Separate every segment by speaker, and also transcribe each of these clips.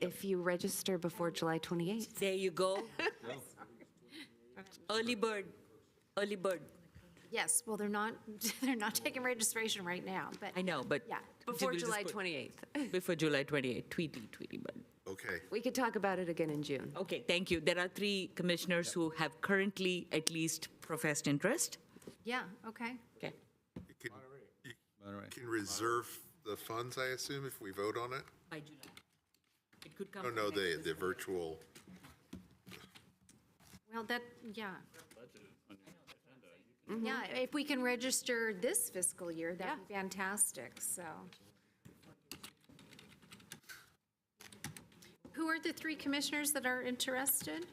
Speaker 1: if you register before July 28th.
Speaker 2: There you go. Early bird, early bird.
Speaker 3: Yes, well, they're not, they're not taking registration right now, but.
Speaker 2: I know, but.
Speaker 3: Yeah.
Speaker 1: Before
Speaker 2: We'll just
Speaker 1: July
Speaker 2: put-
Speaker 1: 28th.
Speaker 2: Before July 28, Tweety, Tweety bird.
Speaker 4: Okay.
Speaker 1: We could talk about it again in June.
Speaker 2: Okay, thank you. There are three commissioners who have currently at least professed interest.
Speaker 3: Yeah, okay.
Speaker 2: Okay.
Speaker 4: You can- You can reserve the funds, I assume, if we vote on it?
Speaker 2: By July. It could come.
Speaker 4: Oh, No, no, the, the virtual,
Speaker 3: Well, that, yeah.
Speaker 1: Mm-hmm.
Speaker 3: Yeah, if we can register this fiscal year, that'd be fantastic, so. Who are the three commissioners that are interested?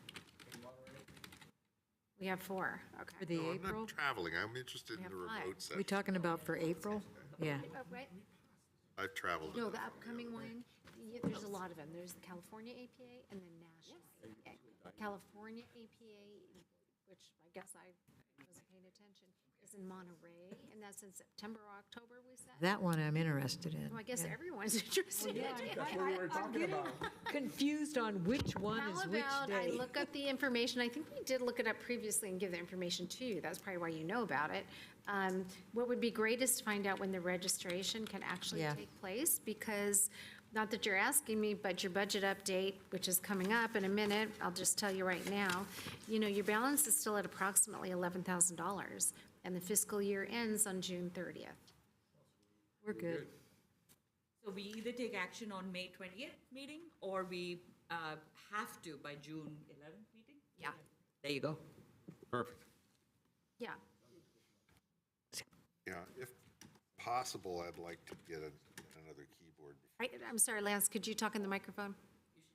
Speaker 3: We have four,
Speaker 5: For
Speaker 3: okay.
Speaker 5: the
Speaker 4: no, I'm
Speaker 5: April?
Speaker 4: not traveling. I'm interested in the
Speaker 3: have five.
Speaker 4: remote
Speaker 5: We
Speaker 4: session.
Speaker 5: talking about for April?
Speaker 2: Yeah.
Speaker 3: Oh,
Speaker 4: I've traveled.
Speaker 3: No, the upcoming one, yeah, there's a lot of them. There's the California APA and the national APA. California APA, which I guess I wasn't paying attention, is in Monterey, and that's in September, or October, we said.
Speaker 5: That one I'm interested in.
Speaker 3: So I guess everyone's interested.
Speaker 5: Confused on which one
Speaker 3: How about I look up the information, I think we did look it up previously and give the information to you, that's probably why you know about it. Um, What would be great is to find out when the registration can actually
Speaker 5: Yeah.
Speaker 3: take place, because, not that you're asking me, but your budget update, which is coming up in a minute, I'll just tell you right now, you know, your balance is still at approximately $11,000, and the fiscal year ends on June 30th.
Speaker 5: We're good.
Speaker 2: So we either take action on May 28th meeting, or we uh, have to by June 11th meeting?
Speaker 3: Yeah.
Speaker 2: There you go.
Speaker 6: Perfect.
Speaker 3: Yeah,
Speaker 4: Yeah, if possible, I'd like to get a- another keyboard.
Speaker 3: Right, I'm sorry, Lance, could you talk in the microphone?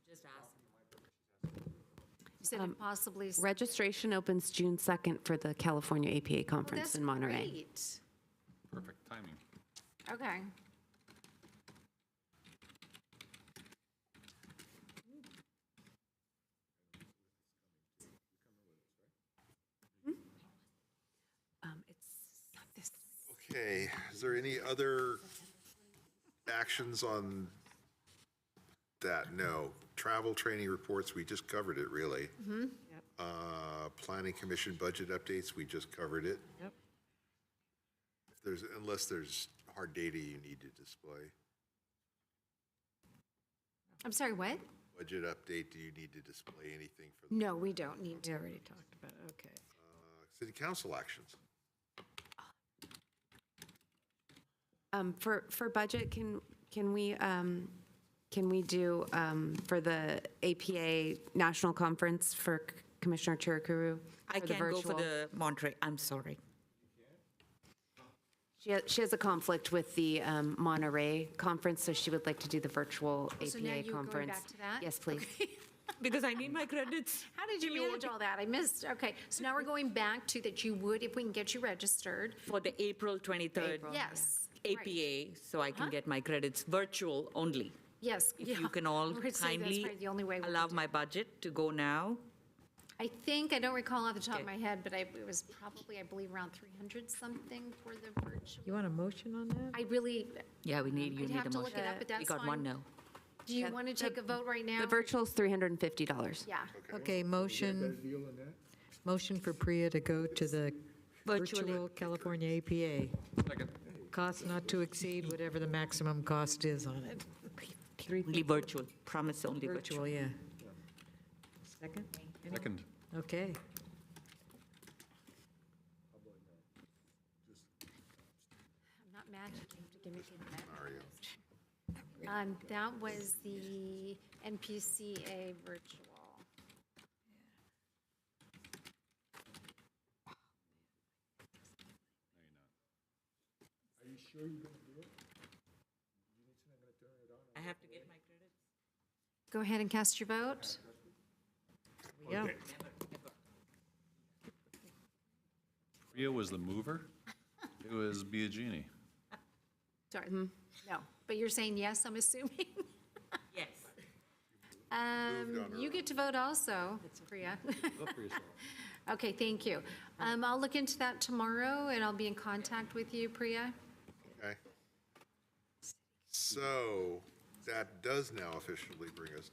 Speaker 2: Just ask.
Speaker 3: You said
Speaker 1: Um,
Speaker 3: if possibly. so.
Speaker 1: Registration opens June 2nd for the California APA
Speaker 3: Well,
Speaker 1: Conference
Speaker 3: Oh, that's
Speaker 1: in Monterey.
Speaker 3: great.
Speaker 6: Perfect timing.
Speaker 3: Okay.
Speaker 1: Um, It's not this.
Speaker 4: Okay, is there any other actions on that? No. Travel, training reports, we just covered it, really. Uh, Planning commission budget updates, we just covered it.
Speaker 5: Yep.
Speaker 4: If there's, unless there's hard data you need to display.
Speaker 3: I'm sorry, what?
Speaker 4: Budget update, do you need to display anything for the
Speaker 3: No, we don't need
Speaker 5: We
Speaker 3: to.
Speaker 5: already talked about, it. okay.
Speaker 4: uh, city council actions?
Speaker 1: Um, For, for budget, can, can we, um, can we do um, for the APA National Conference for C- Commissioner Chirukuru?
Speaker 2: I
Speaker 1: the
Speaker 2: can't go for
Speaker 1: virtual?
Speaker 2: the Monterey, I'm sorry.
Speaker 1: She has, she has a conflict with the um, Monterey Conference, so she would like to do the virtual APA
Speaker 3: Oh, so now
Speaker 1: conference.
Speaker 3: you're going back to that?
Speaker 1: Yes, please.
Speaker 2: Because I need my credits.
Speaker 3: How did you manage all that? I missed, okay. So now we're going back to that you would, if we can get you registered.
Speaker 2: For the April 23rd.
Speaker 3: Yes. right.
Speaker 2: APA, so I can get my credits virtual only.
Speaker 3: Yes.
Speaker 2: If you
Speaker 3: yeah.
Speaker 2: can all
Speaker 3: We're saying that's
Speaker 2: kindly
Speaker 3: probably the only way we
Speaker 2: allow
Speaker 3: can do
Speaker 2: my budget to go now.
Speaker 3: I think, I don't recall off the top of
Speaker 2: Okay.
Speaker 3: my head, but I, it was probably, I believe, around 300 something for the
Speaker 5: You
Speaker 3: virtual.
Speaker 5: want a motion on that?
Speaker 3: I really,
Speaker 2: Yeah, we need, you need
Speaker 3: I'd
Speaker 2: a motion.
Speaker 3: Mm-hmm. have to look it up, but
Speaker 2: We
Speaker 3: that's
Speaker 2: got one
Speaker 3: fine.
Speaker 2: no.
Speaker 3: do you want to take a vote right now?
Speaker 1: The virtual's $350.
Speaker 3: Yeah.
Speaker 5: Okay, motion, motion for Priya to go to the
Speaker 2: Virtually.
Speaker 5: virtual California APA.
Speaker 6: Second.
Speaker 5: Cost not to exceed whatever the maximum cost is on it. Three
Speaker 2: Only virtual, promise only virtual.
Speaker 5: virtual, yeah. Second?
Speaker 6: Second.
Speaker 5: Okay.
Speaker 3: I'm not magic, you have to give me the Mario. Um, that was the NPCA virtual.
Speaker 2: I have to get my credits.
Speaker 3: Go ahead and cast your vote.
Speaker 5: Yeah,
Speaker 6: Priya was the mover. It was Biagini.
Speaker 3: Sorry, no, but you're saying yes, I'm assuming?
Speaker 2: Yes.
Speaker 3: Um, you get to vote also, Priya. Okay, thank you. Um, I'll look into that tomorrow, and I'll be in contact with you, Priya.
Speaker 4: Okay. So that does now officially bring us